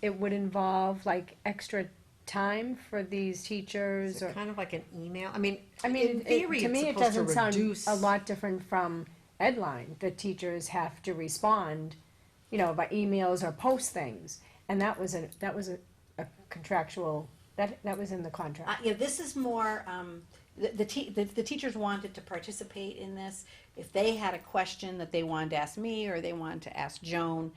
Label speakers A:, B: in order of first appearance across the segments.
A: it would involve like extra time for these teachers
B: Is
A: or,
B: it kind of like an email? I mean,
A: I mean,
B: in
A: it-
B: theory,
A: to me, it
B: it's supposed to
A: doesn't sound
B: reduce.
A: a lot different from Edline, that teachers have to respond, you know, by emails or post things. And that was a, that was a a contractual, that, that was in the
C: Uh,
A: contract.
C: yeah, this is more, um, the, the te- the, the teachers wanted to participate in this. If they had a question that they wanted to ask me or they wanted to ask Joan,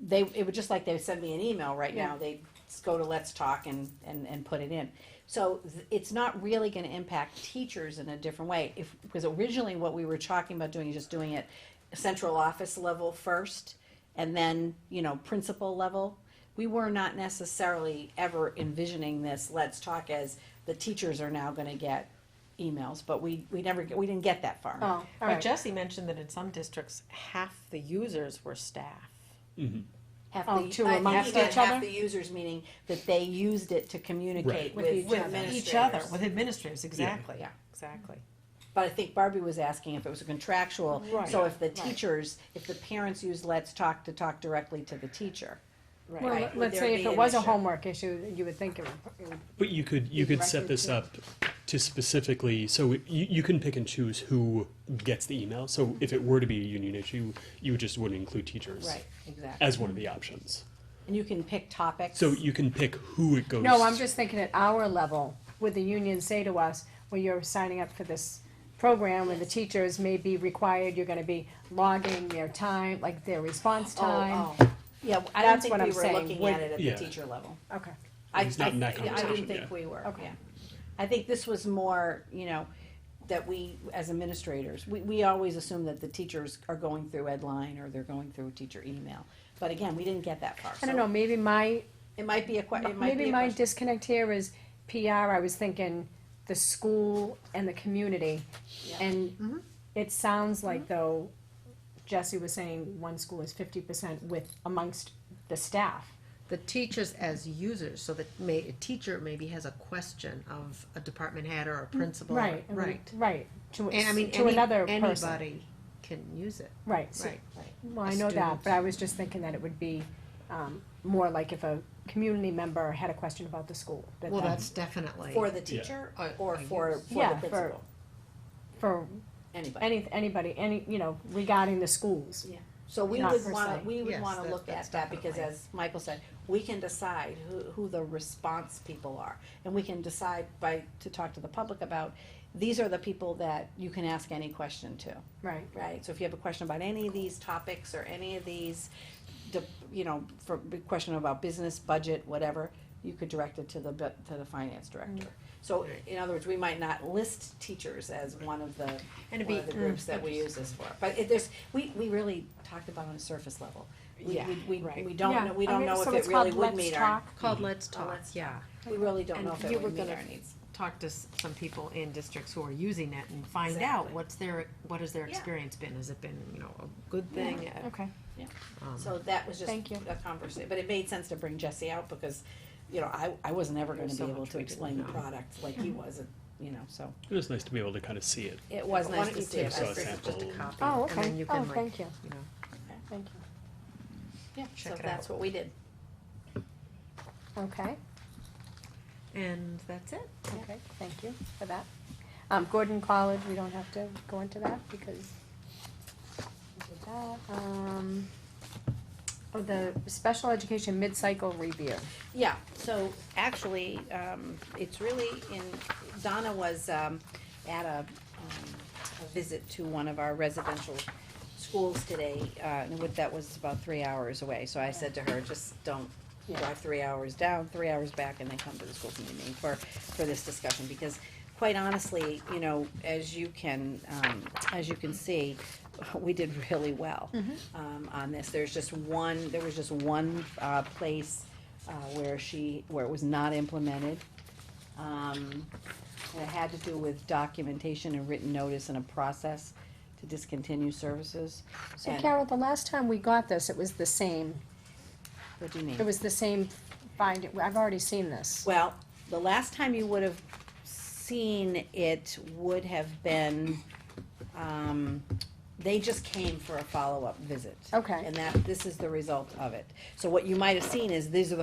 C: they, it would just like they send me an email right now, they just go to Let's Talk and, and, and put it in. So th- it's not really gonna impact teachers in a different way, if, because originally what we were talking about doing is just doing it central office level first, and then, you know, principal level. We were not necessarily ever envisioning this Let's Talk as the teachers are now gonna get emails, but we, we never, we didn't get that far.
A: Oh, all
B: But
A: right.
B: Jesse mentioned that in some districts, half the users were staff.
C: Half
A: Oh,
C: the,
A: two
C: I think
A: amongst
C: even
A: each
C: half
A: other?
C: the users, meaning that they used it to communicate
D: Right.
A: With
C: with,
A: each
C: with
A: other.
C: administrators.
B: Each other, with administrators, exactly,
C: Yeah.
B: exactly.
C: But I think Barbie was asking if it was a contractual,
A: Right.
C: so if the teachers, if the parents use Let's Talk to talk directly to the teacher.
A: Well,
C: Right.
A: let-
C: Would
A: let's
C: there
A: say
C: be
A: if it
C: an
A: was a
C: issue?
A: homework issue, you would think it would, it would
D: But you could you could set this up to specifically so it- you, you can pick and choose who gets the email. So if it were to be a union issue, you just wouldn't include teachers
C: Right, exactly.
D: as one of the options.
C: And you can pick topics. Oh,
D: So you can pick who it goes.
A: No, I'm just thinking at our level, would the union say to us, well, you're signing up for this program where the teachers may be required, you're gonna be logging their time, like their response time?
C: Oh, oh. Yeah, I don't
A: That's
C: think
A: what
C: we
A: I'm
C: were
A: saying,
C: looking
A: would-
C: at it at
D: Yeah.
C: the teacher level.
A: Okay,
C: I,
D: It's not
C: I-
D: in that
C: I
D: conversation,
C: didn't think
D: yeah.
C: we were,
A: Okay.
C: yeah. I think this was more, you know, that we, as administrators, we, we always assume that the teachers are going through Edline or they're going through teacher email. But again, we didn't get that far.
A: I
C: so
A: don't know, maybe my,
C: It might be a que, it might be
A: maybe
C: a
A: my
C: question.
A: disconnect here is PR, I was thinking the school and the community.
C: Yeah. Mm-hmm.
A: And it sounds like though, Jesse was saying one school is fifty percent with, amongst the staff.
E: the teachers as users, so that may, a teacher maybe has a question of a department head or a principal.
A: Mm, Right, and-
E: Right.
A: Right, to,
E: And I mean,
A: to
E: any,
A: another person.
E: anybody can use it,
A: Right, so-
E: right.
A: Well,
E: a
A: I know that,
E: student.
A: but I was just thinking that it would be um, more like if a community member had a question about the school. that
E: Well,
A: that-
E: that's definitely.
C: For the teacher
E: Uh,
C: or
E: I
C: for,
E: guess.
C: for
A: Yeah,
C: the
A: for-
C: principal,
A: For
C: anybody.
A: any, anybody, any, you know, regarding the schools.
C: So we
A: Not
C: would
A: per
C: wanna,
A: se.
C: we would
E: Yes,
C: wanna
E: that-
C: look
E: that's
C: at that because
E: definitely.
C: as Michael said, we can decide who, who the response people are. And we can decide by, to talk to the public about, these are the people that you can ask any question to.
A: Right.
C: right? So if you have a question about any of these topics or any of these, de- you know, for a question about business, budget, whatever, you could direct it to the, bu- to the finance director.
A: Mm-hmm.
C: So in other words, we might not list teachers as one of the,
B: And it'd
C: one
B: be-
C: of the groups
A: mm,
C: that we use this for. But it, there's, we, we really talked about on a surface level. We,
B: Yeah,
C: we, we,
B: right.
C: we don't
A: Yeah,
C: know, we
A: I
C: don't
A: mean,
C: know if
A: so
C: it
A: it's called
C: really would
A: Let's
C: meet our,
A: Talk.
E: Called Let's Talk,
C: Let's
E: yeah.
C: we really don't know if
B: you
C: it
B: were
C: would meet
B: gonna
C: our needs.
B: Talk to s- some people in districts who are using it and find
C: Exactly.
B: out what's their, what has their
C: Yeah.
B: experience been? Has it been, you know, a good thing? A-
A: Okay.
B: um,
C: So that was just
A: Thank you.
C: a conversation, but it made sense to bring Jesse out because, you know, I, I was never gonna
B: There's
C: be
B: so
C: able
B: much
C: to
B: we didn't
C: explain the
B: know.
C: product like he was, you know, so.
D: It was nice to be able to kind of see it.
C: It was
B: Why
C: nice
B: don't
C: to
B: you
C: see
B: take
C: it.
D: I saw a
B: this as just a
D: sample.
B: copy,
A: Oh,
B: and then
A: okay.
B: you
A: Oh,
B: can, like,
A: thank you,
B: know,
A: thank you.
C: Yeah,
B: Check
C: so
B: it
C: that's
B: out.
C: what we did.
A: Okay,
B: And that's it.
A: okay, thank you for that. Um, Gordon College, we don't have to go into that because we did that. Um, oh, the special education mid-cycle review.
C: Yeah, so actually, um, it's really in, Donna was, um, at a, um, a visit to one of our residential schools today, uh, and with, that was about three hours away, so I said to her, just don't
A: Yeah.
C: drive three hours down, three hours back, and then come to the school committee meeting for, for this discussion, because quite honestly, you know, as you can, um, as you can see, we did really well, um, on this, there's just one, there was just one, uh, place, uh, where she, where it was not implemented. Um, and it had to do with documentation and written notice and a process to discontinue services.
A: So
C: And-
A: Carol, the last time we got this, it was the same
C: What do you mean?
A: It was the same finding, I've already seen this.
C: Well, the last time you would have seen it would have been, um, they just came for a follow-up visit.
A: Okay.
C: And that, this is the result of it. So what you might have seen is these are the